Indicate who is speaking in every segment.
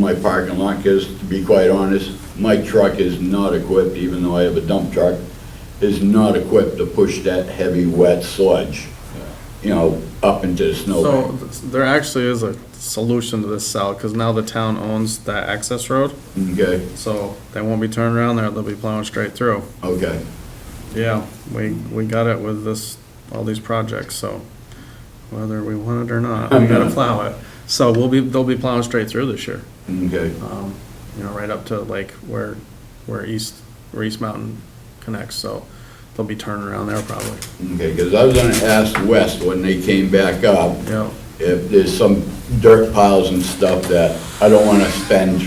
Speaker 1: my parking lot, because to be quite honest, my truck is not equipped, even though I have a dump truck, is not equipped to push that heavy, wet sludge, you know, up into the
Speaker 2: So
Speaker 1: snowbank.
Speaker 2: th- there actually is a solution to this, Sal, because now the town owns that access road,
Speaker 1: Okay,
Speaker 2: so they won't be turning around there, they'll be plowing straight through.
Speaker 1: okay.
Speaker 2: Yeah, we, we got it with this, all these projects, so whether we want it or not, we gotta plow it. So we'll be, they'll be plowing straight through this year,
Speaker 1: Okay,
Speaker 2: um, you know, right up to like where, where East, where East Mountain connects, so they'll be turning around there probably.
Speaker 1: okay, because I was gonna ask West when they came back up,
Speaker 2: Yeah,
Speaker 1: if there's some dirt piles and stuff that I don't wanna spend,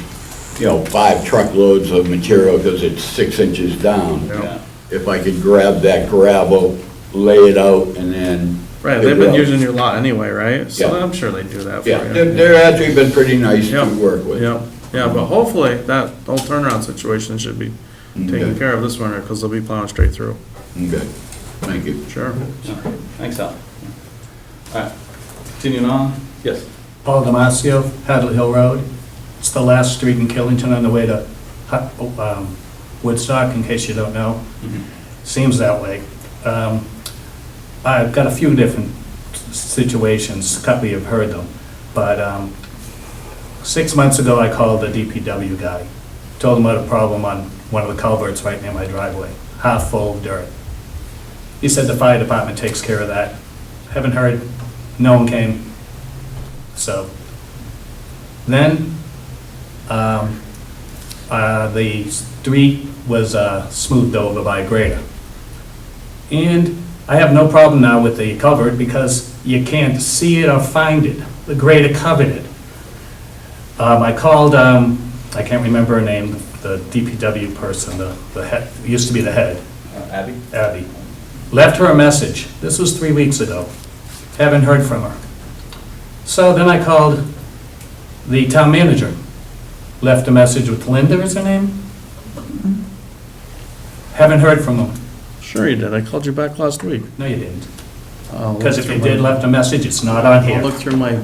Speaker 1: you know, five truckloads of material because it's six inches down.
Speaker 2: Yeah.
Speaker 1: If I could grab that gravel, lay it out, and then.
Speaker 2: right, they've been
Speaker 1: It will.
Speaker 2: using your lot anyway, right? So
Speaker 1: Yeah.
Speaker 2: I'm sure they do that for you.
Speaker 1: Yeah, they're, they're actually been pretty nice to
Speaker 2: Yeah,
Speaker 1: work with.
Speaker 2: Yeah, yeah, but hopefully that whole turnaround situation should be taken
Speaker 1: Okay.
Speaker 2: care of this winter, because they'll be plowing straight through,
Speaker 1: Okay, thank you.
Speaker 2: sure.
Speaker 3: Thanks, Al. All right, continuing on, yes.
Speaker 4: Paul Damasio, Hadley Hill Road. It's the last street in Killington on the way to Hut- um, Woodstock, in case you don't know. Seems that way. Um, I've got a few different s- situations, a couple you've heard them, but um, six months ago, I called the DPW guy. Told him I had a problem on one of the culverts right near my driveway, half full of dirt. He said the fire department takes care of that. Haven't heard, no one came, so, then, um, uh, the street was, uh, smoothed over by a grader. And I have no problem now with the culvert because you can't see it or find it. The grader covered it. Um, I called, um, I can't remember her name, the DPW person, the, the head, used to be the head.
Speaker 3: Uh, Abby?
Speaker 4: Abby. Left her a message. This was three weeks ago. Haven't heard from her. So then I called the town manager. Left a message with Linda is her name? Haven't heard from them.
Speaker 2: Sure you did, I called you back last week.
Speaker 4: No, you didn't.
Speaker 2: I'll look
Speaker 4: Because if
Speaker 2: through
Speaker 4: you
Speaker 2: my-
Speaker 4: did left a message, it's not on
Speaker 2: I'll
Speaker 4: here.
Speaker 2: look through my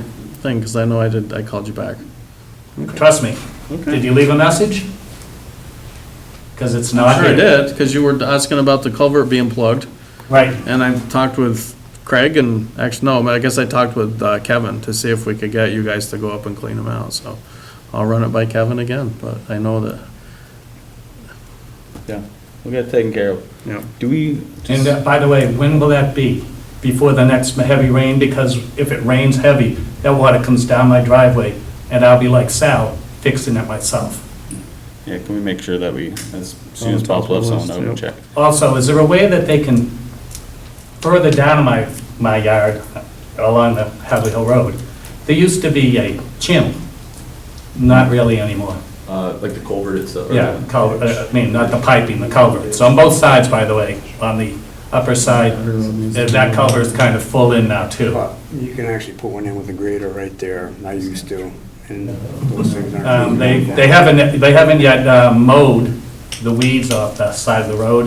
Speaker 2: thing, because I know I did, I called you back.
Speaker 4: Trust me. Did
Speaker 2: Okay.
Speaker 4: you leave a message? Because it's not
Speaker 2: Sure
Speaker 4: here.
Speaker 2: I did, because you were asking about the culvert being plugged,
Speaker 4: Right.
Speaker 2: and I talked with Craig and, actually, no, I guess I talked with uh, Kevin to see if we could get you guys to go up and clean them out, so I'll run it by Kevin again, but I know that,
Speaker 3: Yeah, we got it taken care of.
Speaker 2: you know,
Speaker 3: Do we?
Speaker 4: And uh, by the way, when will that be? Before the next heavy rain? Because if it rains heavy, that water comes down my driveway, and I'll be like Sal, fixing it myself.
Speaker 3: Yeah, can we make sure that we, as soon as possible, have someone out and check?
Speaker 4: Also, is there a way that they can, further down my, my yard, uh, along the Hadley Hill Road, there used to be a channel, not really anymore.
Speaker 5: Uh, like the culvert itself? or
Speaker 4: Yeah,
Speaker 5: the-
Speaker 4: culvert, uh, I mean, not the piping, the culvert. So on both sides, by the way, on the upper side, uh, that culvert's kind of full in now too.
Speaker 6: But you can actually put one in with a grader right there, I used to, and those things aren't.
Speaker 4: Um, They, they haven't, they haven't yet uh, mowed the weeds off the side of the road,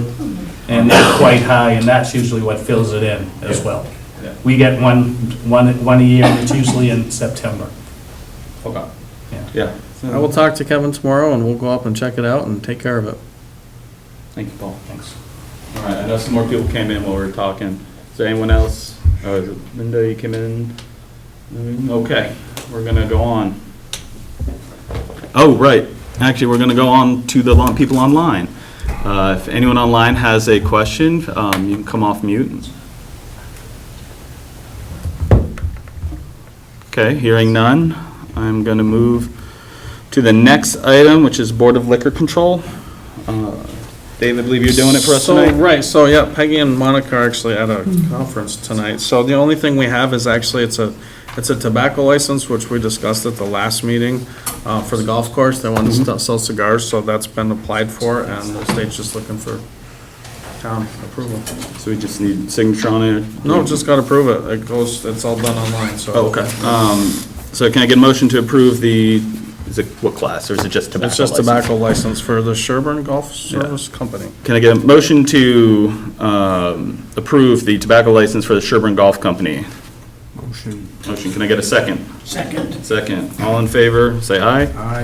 Speaker 4: and they're quite high, and that's usually what fills it in as well.
Speaker 3: Yeah.
Speaker 4: We get one, one, one a year, and it's usually in September.
Speaker 3: Okay.
Speaker 4: Yeah.
Speaker 3: Yeah.
Speaker 2: I will talk to Kevin tomorrow, and we'll go up and check it out and take care of it.
Speaker 3: Thank you, Paul.
Speaker 4: Thanks.
Speaker 3: All right, I know some more people came in while we were talking. Is there anyone else? Oh, is it Linda, you came in? Mm, Okay, we're gonna go on. Oh, right. Actually, we're gonna go on to the lon- people online. Uh, If anyone online has a question, um, you can come off mute. Okay, hearing none, I'm gonna move to the next item, which is Board of Liquor Control. Uh, David, I believe you're doing it for us
Speaker 2: So,
Speaker 3: tonight?
Speaker 2: Right, so, yeah, Peggy and Monica are actually at a conference tonight, so the only thing we have is actually, it's a, it's a tobacco license, which we discussed at the last meeting, uh, for the golf course, they want
Speaker 3: Mm-hmm.
Speaker 2: to sell cigars, so that's been applied for, and the state's just looking for town approval.
Speaker 3: So we just need signature on it?
Speaker 2: No, just gotta approve it, it goes, it's all done online, so.
Speaker 3: Oh, Okay. Um, So can I get a motion to approve the, is it what class, or is it just tobacco?
Speaker 2: It's just
Speaker 3: license?
Speaker 2: tobacco license for the Sherburne Golf Service Company.
Speaker 3: Can I get a motion to um, approve the tobacco license for the Sherburne Golf Company? Motion. Motion, can I get a second? Second. Second. All in favor, say aye.